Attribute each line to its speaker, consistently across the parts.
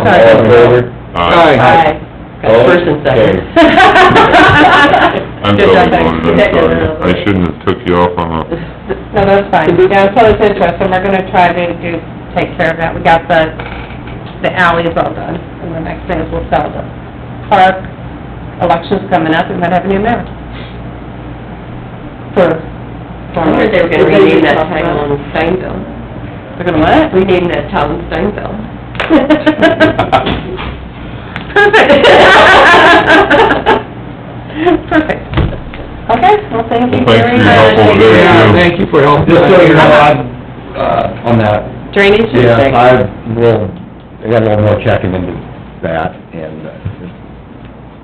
Speaker 1: All in favor?
Speaker 2: Aye.
Speaker 1: Oh,
Speaker 2: That's first and second.
Speaker 3: Oh.
Speaker 4: I'm
Speaker 2: Good job,
Speaker 4: totally
Speaker 2: Becky.
Speaker 4: one, I'm sorry, I shouldn't have took you off on a,
Speaker 3: No, that's fine. Yeah, so it's interesting, we're gonna try to do, take care of that. We got the, the alleys all done, and the next thing is we'll sell the park. Election's coming up, we might have a new mayor. For,
Speaker 2: I
Speaker 3: for...
Speaker 2: wonder if they were gonna rename that town Steinville.
Speaker 3: They're gonna what?
Speaker 2: Rename that town Steinville.
Speaker 3: Perfect. Perfect. Okay, well, thank you
Speaker 4: Well, thanks for
Speaker 3: very
Speaker 4: your
Speaker 3: much.
Speaker 4: help over there.
Speaker 1: Yeah,
Speaker 4: you.
Speaker 1: thank you for helping.
Speaker 5: Just so you know,
Speaker 1: I,
Speaker 5: I'm, uh, on that,
Speaker 2: Drainage is
Speaker 5: yeah,
Speaker 2: like-
Speaker 5: I will, I got a little more checking into that, and, uh,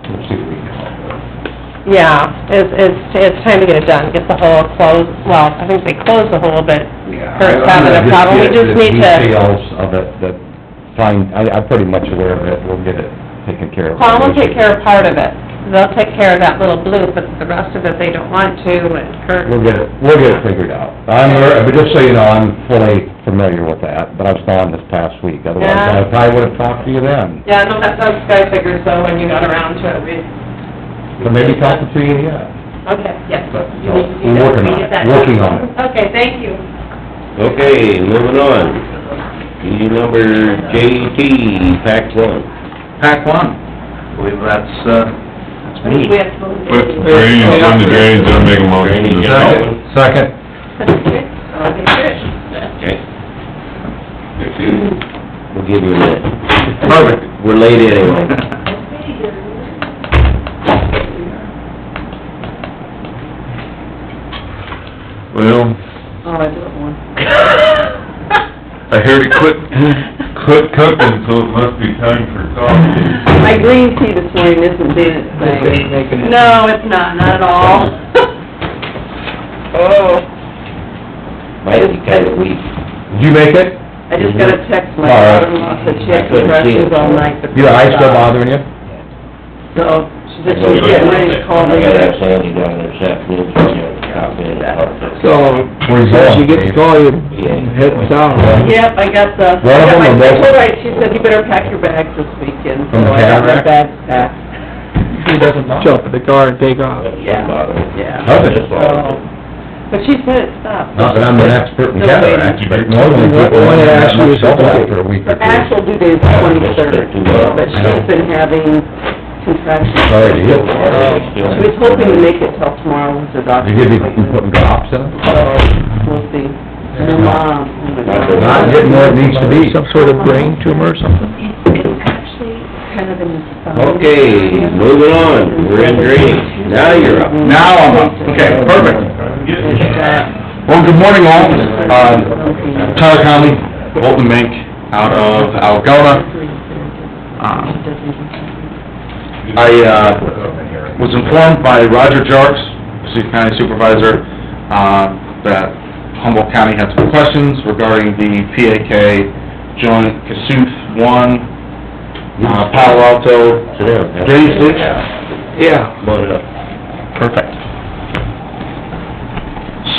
Speaker 5: we'll see what we can come up with.
Speaker 3: Yeah, it's, it's, it's time to get it done, get the hole closed, well, I think they closed the hole, but
Speaker 5: Yeah, I-
Speaker 3: Kurt's
Speaker 5: I'm
Speaker 3: having a
Speaker 5: gonna
Speaker 3: problem. We
Speaker 5: get
Speaker 3: just
Speaker 5: the
Speaker 3: need to-
Speaker 5: Details of it, that, fine, I, I'm pretty much aware of it, we'll get it taken care of.
Speaker 3: Paul will take care of part of it. They'll take care of that little blue, but the rest of it, they don't want to, and Kurt,
Speaker 5: We'll get it, we'll get it figured out. I'm, aware- but just so you know, I'm fully familiar with that, but I was gone this past week, otherwise I
Speaker 3: Yeah.
Speaker 5: probably would've talked to you then.
Speaker 3: yeah, no, that's, that's, I figured so, when you got around to it, we,
Speaker 5: But maybe talking to you yet.
Speaker 3: okay, yes.
Speaker 5: But,
Speaker 3: You
Speaker 5: no,
Speaker 3: need
Speaker 5: we're working on
Speaker 3: to do that. We get
Speaker 5: it,
Speaker 3: that
Speaker 5: working
Speaker 3: done.
Speaker 5: on it.
Speaker 3: Okay, thank you.
Speaker 6: Okay, moving on. E number JT, Pack One.
Speaker 1: Pack one. believe that's, uh, that's me.
Speaker 3: We have to move.
Speaker 4: but drainage, when the drainage, I'm making a motion.
Speaker 6: Drainage, yeah.
Speaker 5: Second. Uh,
Speaker 6: Okay. We'll give you a minute.
Speaker 1: Perfect.
Speaker 6: We're late anyway.
Speaker 4: Well,
Speaker 2: Oh, I do it one.
Speaker 4: I heard it quit, quit cooking, so it must be time for coffee.
Speaker 2: My green tea this morning isn't doing its thing.
Speaker 3: No, it's not, not at all.
Speaker 2: Oh.
Speaker 6: Might be kinda weak.
Speaker 5: Did you make it?
Speaker 2: I just got a text,
Speaker 5: All
Speaker 2: my
Speaker 5: right.
Speaker 2: daughter-in-law said she had
Speaker 6: I couldn't see
Speaker 2: crushes
Speaker 6: it.
Speaker 2: all night. but-
Speaker 5: Your eyes still bothering you?
Speaker 2: No, she said she was getting ready to call
Speaker 6: I
Speaker 2: me.
Speaker 6: gotta have Sandy down there this afternoon, so I'm gonna stop in and help her.
Speaker 1: So,
Speaker 5: Where you
Speaker 1: as
Speaker 5: going,
Speaker 1: you get the
Speaker 5: Dave?
Speaker 1: call, you
Speaker 6: Yeah.
Speaker 1: hit the sound.
Speaker 2: Yep, I got the, I
Speaker 5: One of
Speaker 2: got
Speaker 5: them or
Speaker 2: my, I
Speaker 5: both?
Speaker 2: told her, she said, you better pack your bags this weekend, so
Speaker 5: From the
Speaker 2: I got my
Speaker 5: cataract?
Speaker 2: bags packed.
Speaker 5: He doesn't know.
Speaker 1: Jump in the car and take off.
Speaker 2: Yeah, yeah.
Speaker 5: Does it?
Speaker 2: So, But she said it stopped.
Speaker 5: Not that I'm an expert in cataracts, but normally people only
Speaker 1: Well, yeah,
Speaker 5: have
Speaker 1: actually,
Speaker 5: much
Speaker 1: it's-
Speaker 5: trouble after a week or
Speaker 2: Her
Speaker 5: two.
Speaker 2: actual due date is twenty-third, but she's been having contractions.
Speaker 5: Sorry to hear that.
Speaker 2: She was hoping to make it till tomorrow with her doctor.
Speaker 5: You could be putting drops in it?
Speaker 2: So, we'll see. And her mom, oh my God.
Speaker 5: Not getting where it needs to be.
Speaker 1: Some sort of brain tumor or something?
Speaker 2: It's actually kind of in the spine.
Speaker 6: Okay, moving on, we're in drainage. Now you're up.
Speaker 5: Now I'm up, okay, perfect.
Speaker 2: It's, uh,
Speaker 5: Well, good morning all, uh, Tyler Conley, Bolton Mink, out of Algona. Um, I, uh, was informed by Roger Jarks, City County Supervisor, uh, that Humboldt County had some questions regarding the PAK joint Cassuth one, uh, Palo Alto.
Speaker 6: Sit down.
Speaker 5: Drainage ditch?
Speaker 1: Yeah.
Speaker 6: Come on up.
Speaker 5: Perfect.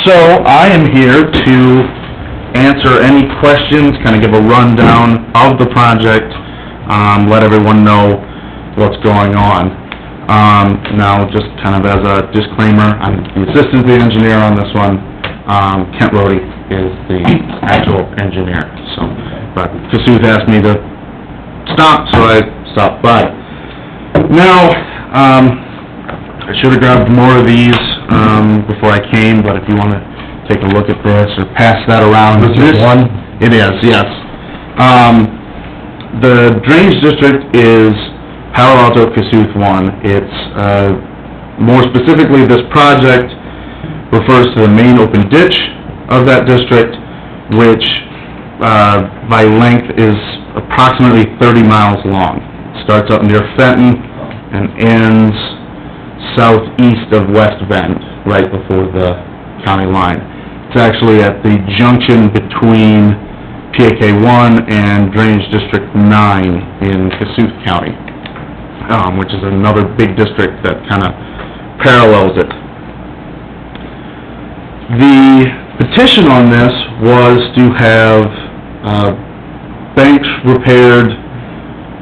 Speaker 5: So I am here to answer any questions, kind of give a rundown of the project, um, let everyone know what's going on. Um, now, just kind of as a disclaimer, I'm the assistant to the engineer on this one. Um, Kent Rhodey is the actual engineer, so, but Cassuth asked me to stop, so I stopped by. Now, um, I should have grabbed more of these, um, before I came, but if you wanna take a look at this or pass that around. This is one? It is, yes. Um, the drainage district is Palo Alto Cassuth one. It's, uh, more specifically, this project refers to the main open ditch of that district, which, uh, by length is approximately thirty miles long. Starts up near Fenton and ends southeast of West Bend, right before the county line. It's actually at the junction between PAK one and Drainage District nine in Cassuth County, um, which is another big district that kinda parallels it. The petition on this was to have, uh, banks repaired